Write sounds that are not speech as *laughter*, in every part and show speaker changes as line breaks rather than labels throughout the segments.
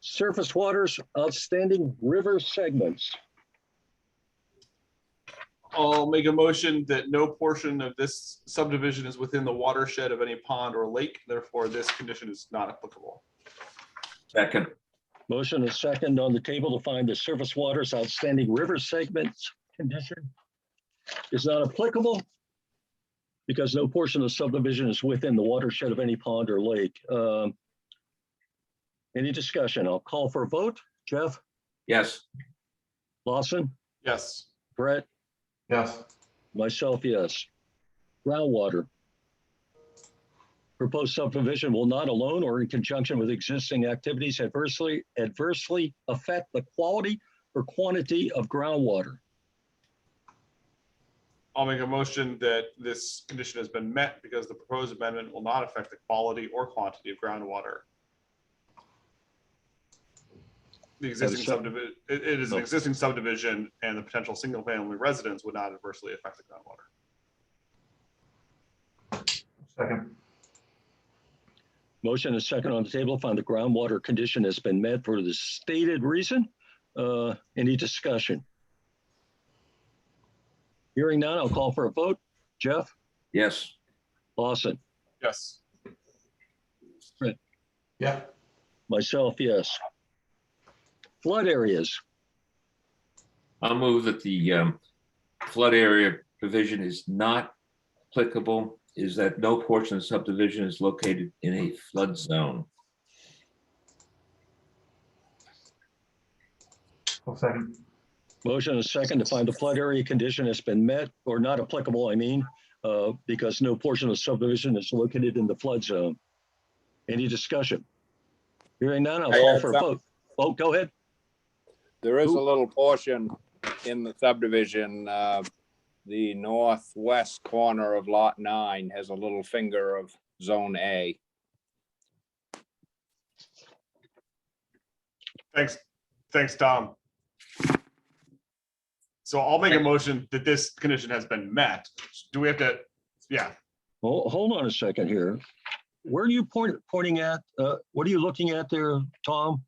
surface waters, outstanding river segments.
I'll make a motion that no portion of this subdivision is within the watershed of any pond or lake, therefore this condition is not applicable.
Second,
Motion is second on the table to find the surface waters, outstanding river segments condition is not applicable because no portion of subdivision is within the watershed of any pond or lake. Um, Any discussion? I'll call for a vote. Jeff,
yes,
Lawson,
Yes.
Brett,
Yes.
Myself, yes. Groundwater. Proposed subdivision will not alone or in conjunction with existing activities adversely adversely affect the quality or quantity of groundwater.
I'll make a motion that this condition has been met because the proposed amendment will not affect the quality or quantity of groundwater. The existing
second?
subdivision, it it is an
No.
existing subdivision and the potential single-family residence would not adversely affect the groundwater.
Motion is second on the table, find the groundwater condition has been met for the stated reason. Uh, Any discussion? Hearing none, I'll call for a vote. Jeff,
yes,
Lawson,
Yes.
myself, yes. Flood areas,
I'll move that the um, flood area provision is not applicable, is that no portion of subdivision is located in a flood zone.
second.
Motion is second to find the flood area condition has been met or not applicable, I mean, uh, because no portion of subdivision is located in the flood zone. Any discussion? Hearing none, I'll
I
call
have
for a
some-
vote. Oh, go ahead.
There is a
Who-
little portion in the subdivision, uh, the northwest corner of lot nine has a little finger of zone A.
Thanks, thanks, Tom. So I'll make a motion that this condition has been met. Do we have to, yeah,
Ho- Hold on a second here. Where are you point- pointing at? Uh, What are you looking at there, Tom?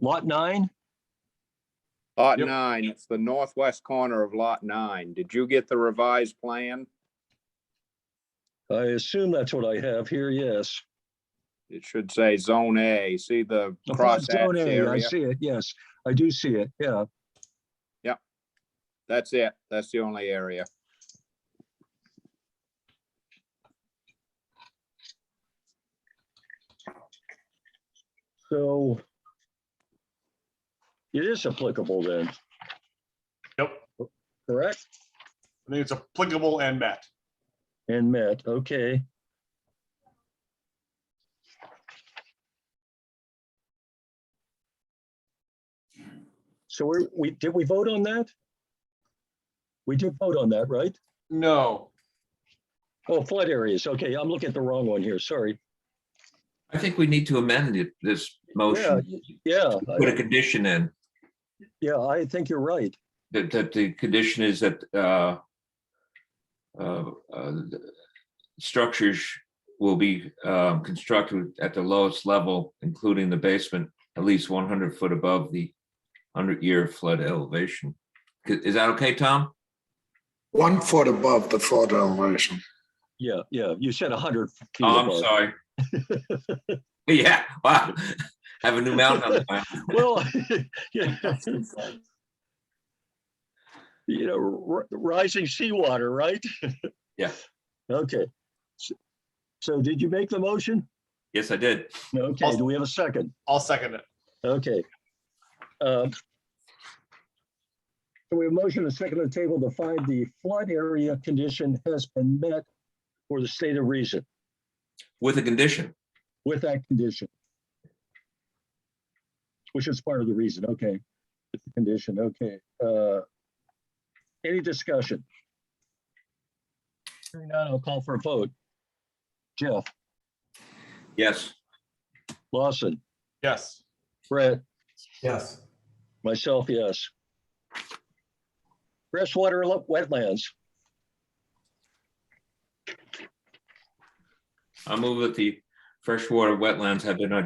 Lot nine?
Lot
Yep.
nine, it's the northwest corner of lot nine. Did you get the revised plan?
I assume that's what I have here, yes.
It should say zone A. See the
The flood
cross
*laughs* zone area, I
area?
see it, yes. I do see it, yeah.
That's it. That's the only area.
So it is applicable then,
yep,
correct?
I think it's applicable and met.
And met, okay. So we're, we, did we vote on that? We did vote on that, right?
No,
Oh, flood areas, okay, I'm looking at the wrong one here, sorry.
I think we need to amend it- this motion,
Yeah,
put a
I-
condition in,
yeah, I think you're right.
that, that the condition is that uh, uh, uh, the structures will be um, constructed at the lowest level, including the basement, at least one hundred foot above the hundred-year flood elevation. C- Is that okay, Tom?
One foot above the flood elevation.
Yeah, yeah, you said 100 feet
Oh, I'm
above.
sorry. *laughs*
*laughs*
Yeah, wow, *laughs* have a new mountain on the mind.
Well, yeah. You know, r- rising seawater, right?
Yeah.
Okay. S- So did you make the motion?
Yes, I did.
Okay, do we have a second?
I'll second it.
Okay. Um, So we have motion and second on the table to find the flood area condition has been met for the state of reason
With a condition,
with that condition. Which is part of the reason, okay, with the condition, okay. uh, Any discussion? Hearing none, I'll call for a vote. Jeff,
yes,
Lawson,
Yes,
Brett,
Yes.
myself, yes. Freshwater lo- wetlands,
I move that the freshwater wetlands have been